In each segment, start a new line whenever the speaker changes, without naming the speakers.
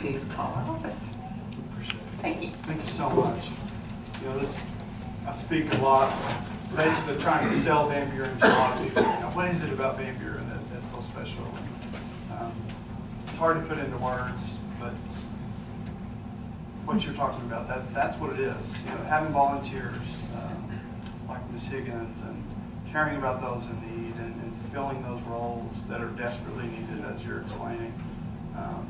to call our office.
Appreciate it.
Thank you.
Thank you so much. You know, this, I speak a lot, basically trying to sell Van Buren to a lot of people. You know, What is it about Van Buren that, that's so special? Um, It's hard to put into words, but what you're talking about, that, that's what it is. You know, having volunteers, um, like Ms. Higgins, and caring about those in need and and filling those roles that are desperately needed, as you're explaining. Um,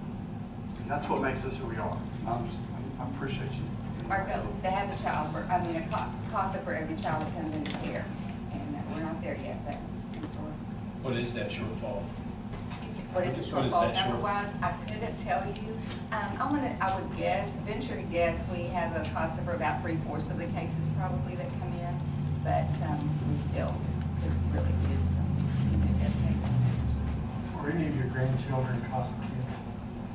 That's what makes us who we are. I'm just, I appreciate you.
Our goal is to have a child for, I mean, a co- CASA for every child that comes into care. And uh, we're not there yet, but we're-
What is that shortfall?
excuse me, what is the
What is
shortfall?
that short-
Otherwise, I couldn't tell you. Um, I'm gonna, I would guess, venture to guess, we have a CASA for about three fourths of the cases probably that come in. But, um, we still could really use some, some new educators.
Were any of your grandchildren CASA kids?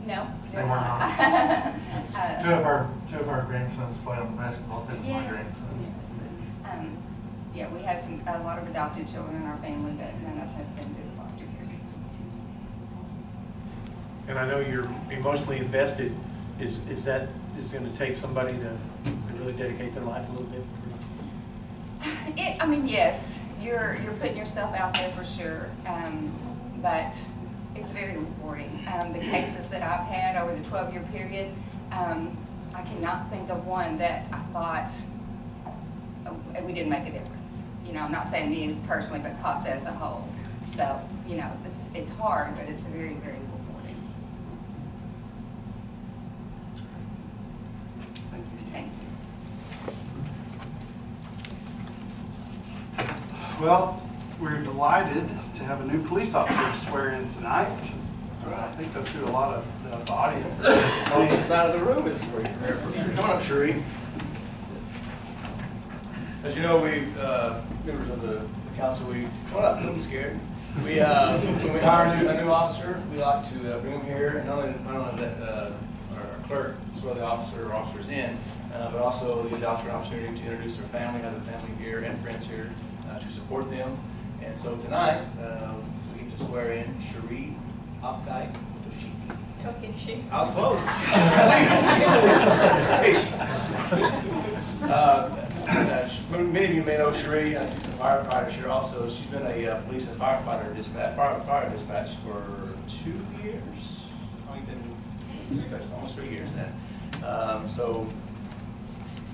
No,
They
they're
were
not.
not.
Uh,
Two of our, two of our grandsons played on the basketball team, with my
Yes,
grandsons.
yes. Um, Yeah, we have some, a lot of adopted children in our family, but none of them have been through the foster care system.
And I know you're emotionally invested. Is, is that, is it gonna take somebody to to really dedicate their life a little bit?
It, I mean, yes, you're, you're putting yourself out there for sure, um, but it's very rewarding. Um, the cases that I've had over the twelve-year period, um, I cannot think of one that I thought uh, we didn't make a difference. You know, I'm not saying me personally, but CASA as a whole. So, you know, it's, it's hard, but it's very, very rewarding.
Thank you.
Thank you.
Well, we're delighted to have a new police officer swear in tonight. I think that's who a lot of the- the audience
Opposite
is.
side of the room is for you. Come on up, Sheree. As you know, we, uh, members of the the council, we, come on up, don't be scared. We, uh, when we hire a new- a new officer, we like to uh, bring them here, and not only, not only let uh, our clerk swear the officer or officers in, uh, but also the officer an opportunity to introduce their family, have the family here and friends here uh, to support them. And so tonight, uh, we get to swear in Sheree Opdyke Toshiki. I was close. Uh, uh, Many of you may know Sheree, uh, she's a firefighter here also. She's been a uh, police and firefighter dispatch, fire fire dispatch for two years. Oh, I think that was dispatch, almost three years now. Um, So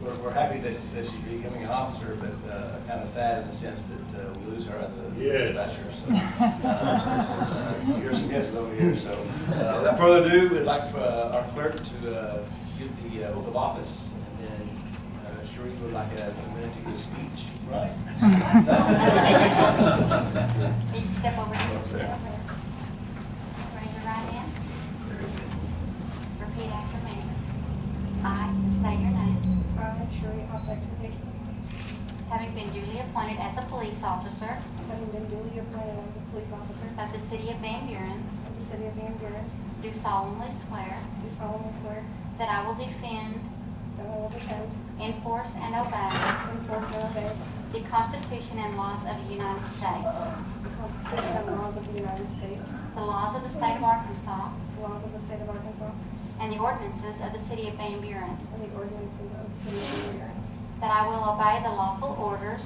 we're, we're happy that, that she's becoming an officer, but uh, kind of sad in the sense that uh, we lose her as a dispatcher, so. uh, Here's some guesses over here, so. uh, Without further ado, we'd like uh, our clerk to uh, give the uh, oath of office, and then uh, Sheree would like a a minute to give a speech, right?
Can you step over here?
Okay.
Raise your right hand. Repeat after me. I state your name.
I, Sherry Hoffman Turkey,
Having been duly appointed as a police officer
having been duly appointed as a police officer
of the city of Van Buren,
of the city of Van Buren,
do solemnly swear
do solemnly swear
that I will defend,
that I will defend,
enforce, and obey
enforce, and obey
the Constitution and laws of the United States,
the Constitution and laws of the United States,
the laws of the state of Arkansas,
the laws of the state of Arkansas,
and the ordinances of the city of Van Buren,
and the ordinances of the city of Van Buren,
that I will obey the lawful orders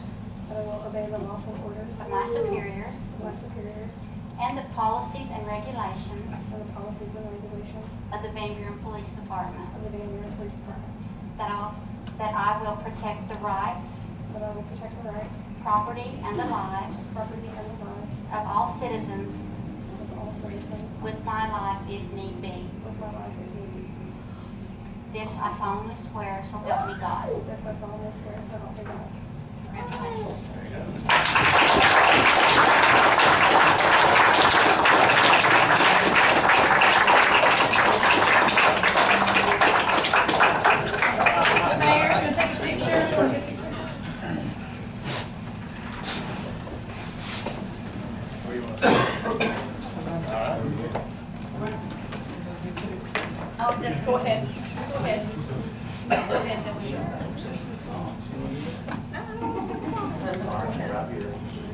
that I will obey the lawful orders
of my superiors
of my superiors,
and the policies and regulations
and the policies and regulations
of the Van Buren Police Department.
of the Van Buren Police Department,
That I, that I will protect the rights,
that I will protect the rights,
property, and the lives
property, and the lives
of all citizens
of all citizens
with my life if need be.
with my life and duty.
This I solemnly swear, so help me God.
This I solemnly swear, so help me God.
Congratulations.
Mayor, can I take a picture?
Where you want to All right.
Oh, just go ahead. Go ahead. Go ahead, just.
Right here.